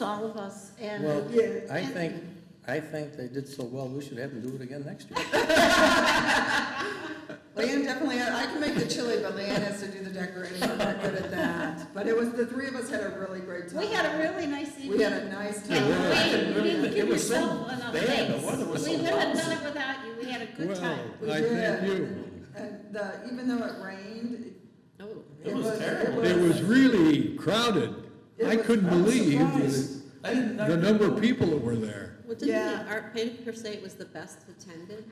all of us, and. Well, Yeah. I think, I think they did so well, we should have them do it again next year. Leanne definitely, had- I can make the chili, but Leanne has to do the decorating, I'm not good at that. But it was, the three of us had a really great time. We had a really nice evening. We had a And nice time. Wayne, you didn't It give was so yourself enough bad, the thanks. weather was We so would have lousy. done it without you, we had a good time. We Well, I did. thank you. And the, even though it rained, Oh. it was. terrible. It was really crowded. It I was- couldn't I was believe surprised. the- the number of people that were there. Well, didn't Yeah. the art painting per se was the best attended?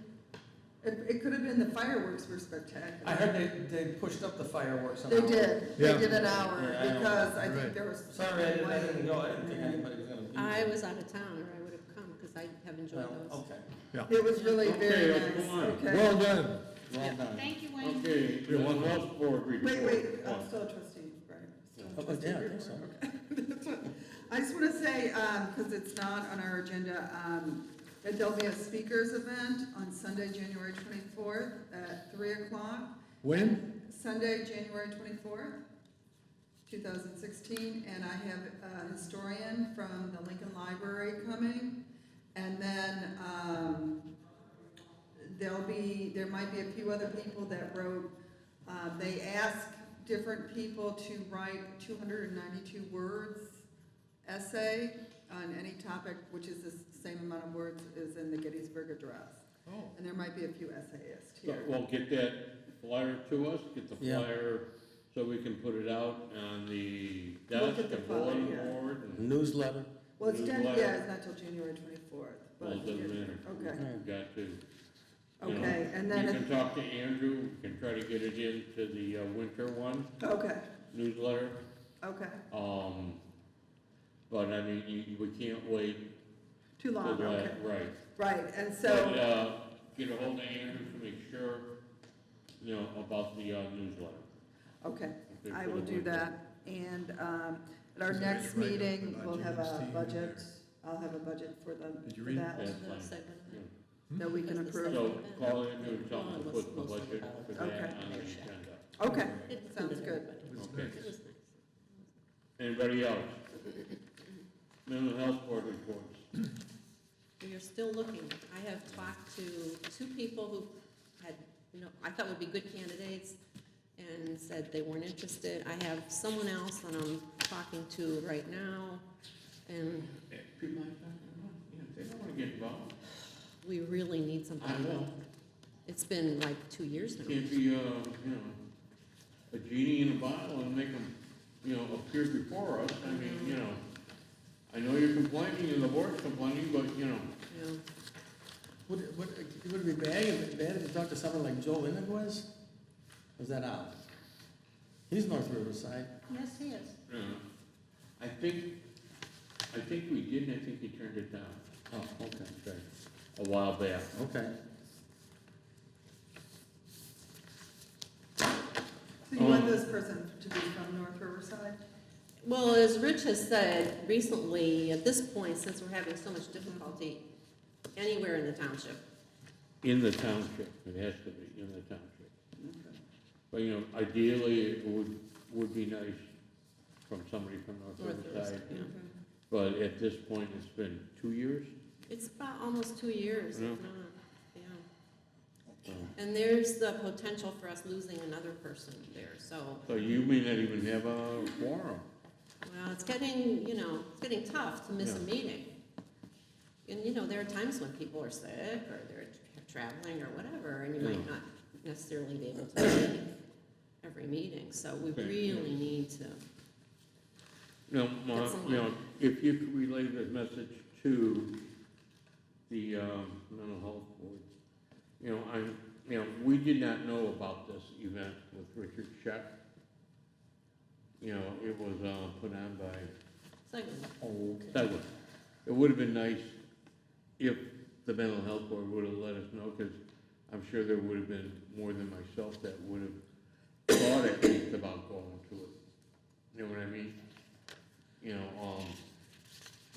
It, it could have been, the fireworks were spectacular. I heard they, they pushed up the fireworks. an They hour. did, they Yeah. did an hour, Yeah, I know. because I think Right. there was. Sorry, I didn't, I didn't go, I didn't think anybody was gonna be. I there. was out of town, or I would have come, because I have enjoyed Well, those. Okay, It was really Okay, very let's nice, go on. okay. Well done. well done. Thank you, Wayne. Okay, the Wells Board report. Wait, wait, Oh. I'm still trustee, Brian. Still Oh, trustee yeah, I think Brewer. so. I just want to say, because it's not on our agenda, um, that there'll be a speakers event on Sunday, January 24th at 3 o'clock. When? Sunday, January 24th, 2016, and I have a historian from the Lincoln Library coming. And then um, there'll be, there might be a few other people that wrote, uh, they asked different people to write 292 words essay on any topic, which is the same amount of words as in the Gettysburg Address. Oh. And there might be a few essayists So, here. Well, get that flyer to us, get the Yeah. flyer, so we can put it out on the Look desk, at the the bulleting flyer, yeah. board, and, Newsletter, Well, it's done, Newsletter. yeah, it's not till January twenty-fourth, but. well, it doesn't matter. Okay, We've Got to, you know, okay, and You then, can talk to Andrew, we can try to get it into the uh, winter one okay, newsletter, okay, um, but I mean, you, you- we can't wait too till long, okay, that, right. right, and But, so, uh, get ahold of Andrew to make sure, you know, about the uh, newsletter. okay, okay, I for will the do winter. that. And, um, at our Is there any next write-up meeting, about we'll have a GST in budget, there? I'll have a budget for the, Did you for read that, Yeah. The website went Yeah. up. that we can Because the approve. So second event, call in and tell them to Dawn was put the mostly budget about for it. that on Okay. the agenda. Okay, It included sounds good. everybody. It's Okay. nice. It was nice. Anybody else? Mental health board reports. We are still looking. I have talked to two people who had, you know, I thought would be good candidates and said they weren't interested. I have someone else that I'm talking to right now, and Eh, People like that, you know, you know, they don't wanna get involved. we really need something. I know, It's been like two years now. can't be, uh, you know, a genie in a bottle and make them, you know, appear before us. I mean, you know, I know you're complaining and the board's complaining, but, you know, Yeah. would, it- would, it- would it be bad if, bad if you talked to someone like Joe Innig was? Was that out? He's North Riverside. Yes, he is. you know, uh, I think, I think we did, and I think he turned it down. Oh, okay, Okay. A while back. okay. So you Um, want this person to be from North Riverside? Well, as Rich has said recently, at this point, since we're having so much difficulty anywhere in the township, In the township, it has to be in the township. Okay. But, you know, ideally, it would, would be nice from somebody from North North Riverside. Riverside, yeah. But at this point, it's been two years? It's about almost two years, if Yeah. not, yeah. And there's the potential for us losing another person there, so, So you may not even have a quorum. well, it's getting, you know, it's getting tough to miss a Yeah. meeting. And, you know, there are times when people are sick, or they're traveling, or whatever, and you might Yeah. not necessarily be able to make every meeting, so we Okay, yeah. really need to, No, That's a you know, if you could relay that message to the, um, mental health board. You know, I'm, you know, we did not know about this event with Richard Scheck. You know, it was, uh, put on by it's like, That would, it would have been nice if the mental health board would have let us know, because I'm sure there would have been more than myself that would have thought at least about going to it. You know what I mean? You know, um,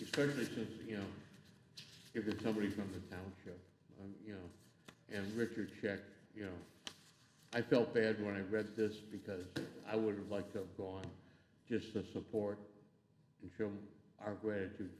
especially since, you know, if it's somebody from the township, um, you know, and Richard Check, you know. I felt bad when I read this because I would have liked to have gone just to support and show our gratitude